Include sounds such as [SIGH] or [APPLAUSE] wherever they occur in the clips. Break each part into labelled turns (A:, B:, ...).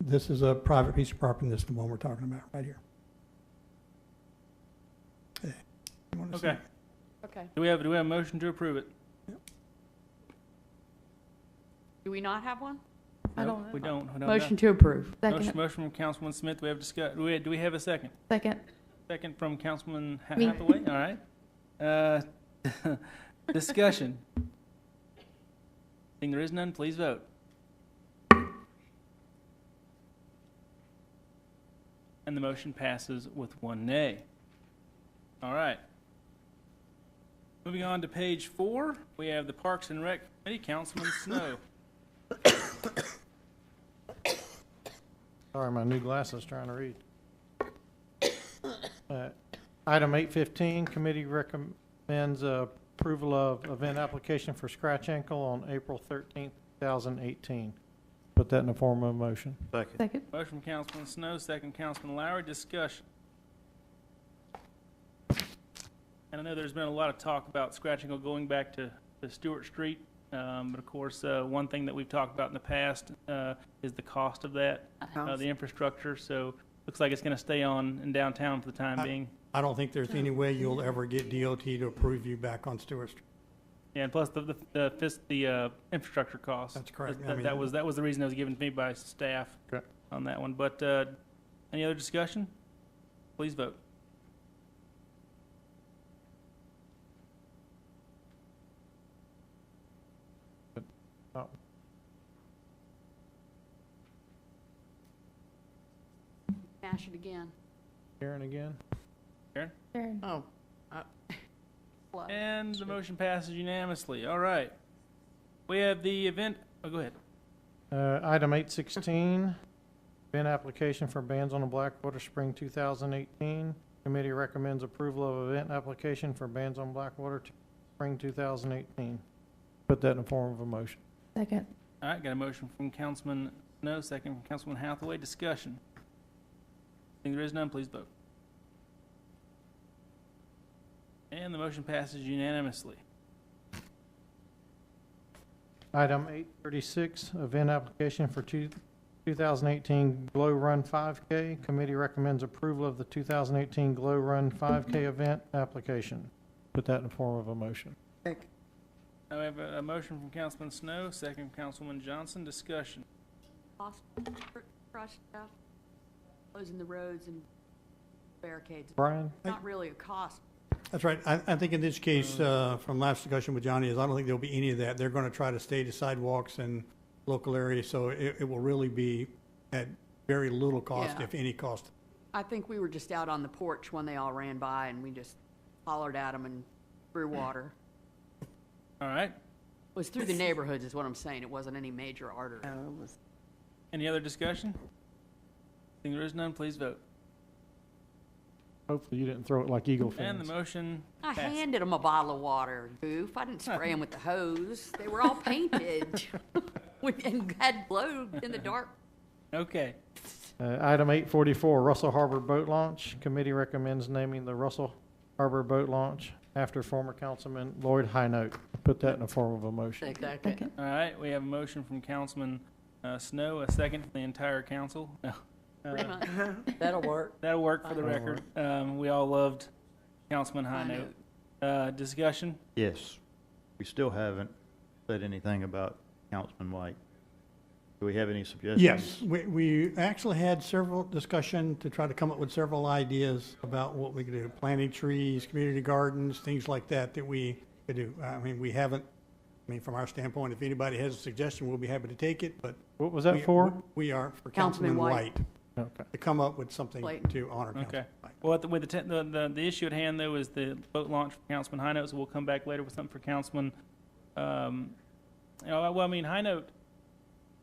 A: This is a private piece of property, this is the one we're talking about, right here. Okay. You wanna see?
B: Okay.
C: Okay.
B: Do we have, do we have a motion to approve it?
C: Do we not have one?
D: I
B: Nope,
D: don't know.
B: We don't. we don't know.
D: Motion to approve.
B: Motion,
D: Second.
B: motion from Councilman Smith. Do we have discuss, do we, do we have a second?
D: Second.
B: Second from Councilman Ha-
D: Me.
B: Hathaway, all right. Uh, [LAUGHS] Discussion. Seeing there is none, please vote. And the motion passes with one nay. All right. Moving on to page four, we have the Parks and Rec Committee, Councilman Snow.
E: Sorry, my new glasses trying to read. [COUGHS] Uh, Item eight fifteen, committee recommends uh, approval of event application for Scratch Ankle on April thirteenth, two thousand eighteen. Put that in the form of a motion.
F: Second.
D: Second.
B: Motion from Councilman Snow, second Councilman Lowry, discussion. And I know there's been a lot of talk about scratching or going back to, to Stewart Street. Um, but of course, uh, one thing that we've talked about in the past, uh, is the cost of that, uh, the infrastructure. So looks like it's gonna stay on in downtown for the time
A: I-
B: being.
A: I don't think there's any way you'll ever get DOT to approve you back on Stewart Street.
B: Yeah, and plus the, the, the fis- the, uh, infrastructure costs.
A: That's correct. I
B: That,
A: mean-
B: that was, that was the reason that was given to me by staff
E: Correct.
B: on that one. But, uh, any other discussion? Please vote.
C: Smash it again.
E: Karen again?
D: Karen.
F: Oh,
C: Flood.
B: And the motion passes unanimously. All right. We have the event, oh, go ahead.
E: Uh, Item eight sixteen, event application for Bands on the Blackwater Spring two thousand eighteen. Committee recommends approval of event application for Bands on Blackwater t- Spring two thousand eighteen. Put that in the form of a motion.
D: Second.
B: All right, got a motion from Councilman Snow, second from Councilman Hathaway. Discussion. Seeing there is none, please vote. And the motion passes unanimously.
E: Item eight thirty-six, event application for two, two thousand eighteen Glow Run five K. Committee recommends approval of the two thousand eighteen Glow Run five K event application. Put that in the form of a motion.
F: second.
B: Now we have a, a motion from Councilman Snow, second from Councilman Johnson. Discussion.
C: Hospital Crushed stuff, closing the roads and barricades.
E: Brian?
C: Not really a cost.
A: That's right. I, I think in this case, uh, from last discussion with Johnny, is I don't think there'll be any of that. They're gonna try to stay to sidewalks and local areas, so it, it will really be at very little cost,
C: Yeah.
A: if any cost.
C: I think we were just out on the porch when they all ran by and we just hollered at them and threw water.
B: All right.
C: It was through the neighborhoods is what I'm saying. It wasn't any major artery.
F: Oh, it was
B: Any other discussion? Seeing there is none, please vote.
E: Hopefully you didn't throw it like Eagle
B: And the
E: fans.
B: motion
C: I
B: passes.
C: handed them a bottle of water, goof. I didn't spray them with the hose. They were all painted [LAUGHS] with- and had glow in the dark.
B: Okay.
E: Uh, item eight forty-four, Russell Harbor Boat Launch. Committee recommends naming the Russell Harbor Boat Launch after former Councilman Lloyd Highnote. Put that in the form of a motion.
C: Exactly.
D: Second.
B: All right, we have a motion from Councilman uh, Snow, a second from the entire council. No. Uh,
C: That'll work.
B: That'll work for the
E: That'll
B: record. Um, We all loved Councilman
C: High
B: Highnote. Uh, Discussion?
G: Yes. We still haven't said anything about Councilman White. Do we have any suggestions?
A: Yes, we, we actually had several discussion to try to come up with several ideas about what we could do, planting trees, community gardens, things like that, that we could do. I mean, we haven't, I mean, from our standpoint, if anybody has a suggestion, we'll be happy to take it, but.
E: What was
A: we-
E: that for?
A: We are for
C: Councilman
A: Councilman
C: White.
A: White,
E: Okay.
A: to come up with something
C: Clayton.
A: to honor
B: Okay.
A: Councilman White.
B: Well, the- with the, te- the, the, the issue at hand though is the boat launch for Councilman High Note, so we'll come back later with something for Councilman. um, you know, Well, I mean, High Note,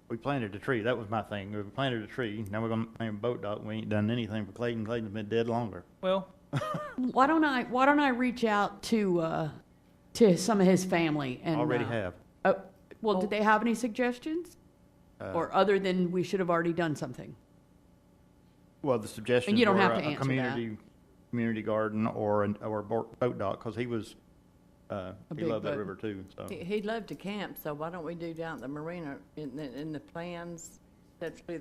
G: We planted a tree. That was my thing. We planted a tree. Now we're gonna plant a boat dock. We ain't done anything for Clayton. Clayton's been dead longer.
B: well,
C: Why don't I, why don't I reach out to, uh, to some of his family and?
G: Already
C: uh,
G: have.
C: Oh, well, did they have any suggestions?
G: Uh,
C: Or other than we should have already done something?
G: Well, the suggestion.
C: don't have to answer that.
G: Community, community garden or, an- or a bo- boat dock, because he was, uh,
C: A
G: he
C: big
G: loved that
C: boat.
G: river too, so.
F: He- He'd love to camp, so why don't we do down at the marina in the, in the plans? That's really